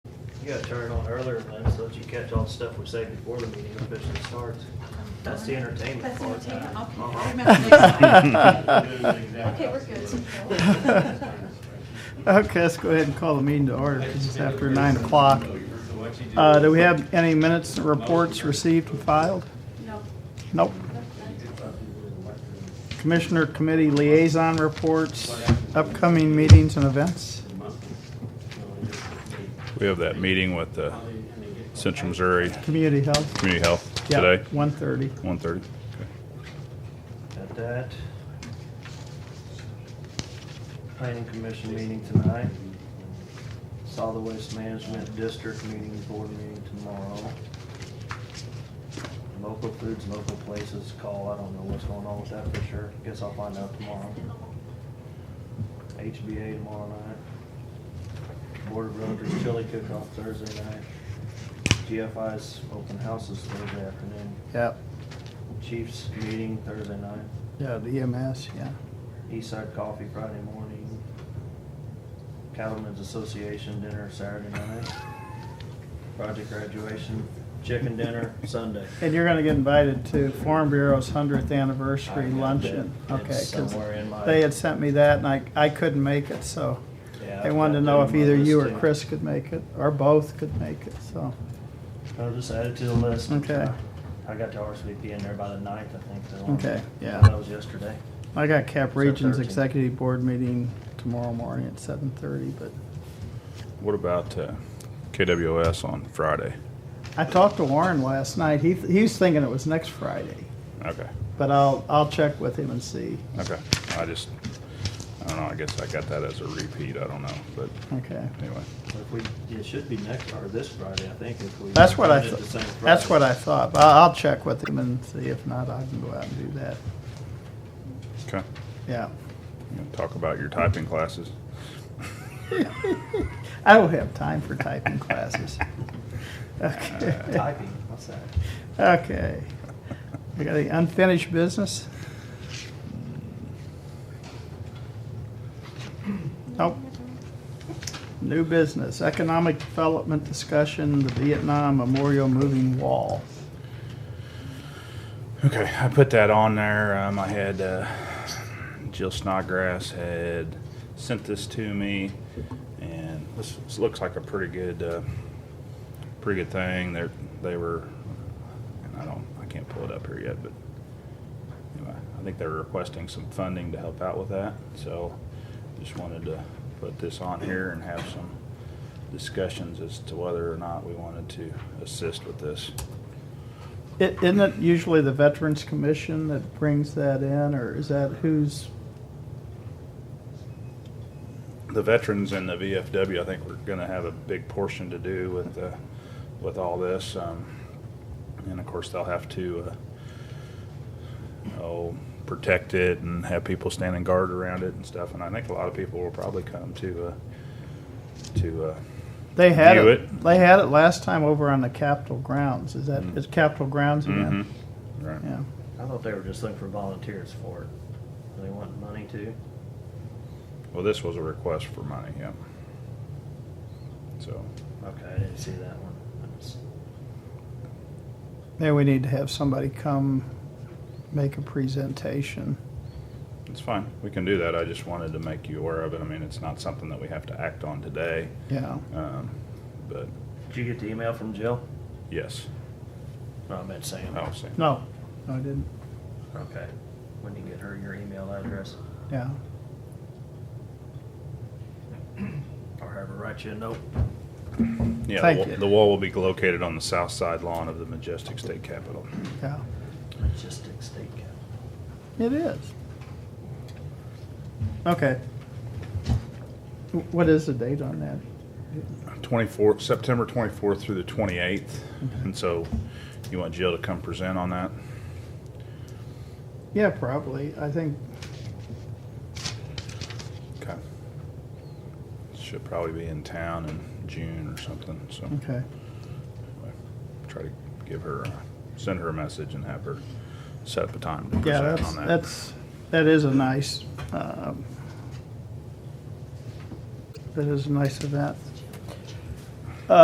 gotta turn it on earlier, Lynn, so that you catch all the stuff we say before the meeting officially starts. That's the entertainment That's part. entertaining. Uh-huh. I'll remember next time. Okay, we're good. Okay, let's go ahead and call the meeting to order, 'cause it's after nine o'clock. Uh, do we have any minutes and reports received and filed? No. Nope. Commissioner Committee Liaison Reports, upcoming meetings and events. We have that meeting with the Central Missouri Community Health. Community Health Yeah, today, 1:30. 1:30. At that. Planning commission meeting tonight. Solid Waste Management District meeting, board meeting tomorrow. Local foods, local places call, I don't know what's going on with that for sure, guess I'll find out tomorrow. HBA tomorrow night. Board of Realtors chili cook-off Thursday night. GFI's open houses Thursday afternoon. Yep, Chiefs meeting Thursday night, yeah, the EMS, yeah. Eastside Coffee Friday morning, Cattlemen's Association dinner Saturday night, project graduation, chicken dinner Sunday. And you're gonna get invited to Farm Bureau's hundredth anniversary I got luncheon. that. Okay, It's 'cause somewhere in my- they had sent me that and I, I couldn't make it, so Yeah, they I've wanted got to know that if on my either you or list, too. Chris could make it, or both could make it, so. I'll just add it to the list. Okay. I got to RSVP in there by the ninth, I think. so. Okay, yeah. That was yesterday. I got Cap So Region's 13. Executive Board meeting tomorrow morning at seven thirty, but What about uh, KWS on Friday? I talked to Warren last night. He, he was thinking it was next Friday, Okay, but I'll, I'll check with him and see. okay. I just, I don't know, I guess I got that as a repeat, I don't know, but Okay. anyway. If we, it should be next, or this Friday, I think, if we. That's what I, did it thought. the same that's what Friday. I thought. But I'll, I'll check with him and see if not, I can go out and do that. Okay, Yeah. You gonna talk about your typing classes. I don't have time for typing classes. Okay. Typing, what's that? Okay. We got any unfinished business? Nope. New business, economic development discussion, the Vietnam Memorial Moving Wall. Okay, I put that on there. Um, I had uh, Jill Snodgrass had sent this to me, and this, this looks like a pretty good, uh, pretty good thing. They they were, and I don't, I can't pull it up here yet, but anyway, I think they were requesting some funding to help out with that. So, just wanted to put this on here and have some discussions as to whether or not we wanted to assist with this. I- Isn't it usually the Veterans Commission that brings that in, or is that who's, the veterans and the VFW, I think, we're gonna have a big portion to do with, uh, with all this. um, And of course, they'll have to, uh, oh, protect it and have people standing guard around it and stuff. And I think a lot of people will probably come to, uh, to, uh, they had View it, it. they had it last time over on the Capitol grounds, is that, is Capitol grounds mhm, again? right. Yeah, I thought they were just looking for volunteers for it. Do they want money too? Well, this was a request for money, yeah. So, Okay, I didn't see that one. That's- there we need to have somebody come make a presentation. it's fine. We can do that. I just wanted to make you aware of it. I mean, it's not something that we have to act on today. Yeah, um, But, Did you get the email from Jill? yes, No, I meant Sam. I'll see. no, no, I didn't, Okay. When you get her your email address, yeah, or have her write you a note. Yeah, Thank the wa- you. the wall will be located on the south side lawn of the majestic state capitol. yeah, Logistics state cap. it is. Okay. Wh- What is the date on that? Twenty-fourth, September twenty-fourth through the twenty-eighth, Mm-hmm. and so you want Jill to come present on that? Yeah, probably, I think, Okay. Should probably be in town in June or something, so okay, anyway, try to give her, a- send her a message and have her set up a time to yeah, present that's, on that. that's, that is a nice, um, that is a nice event.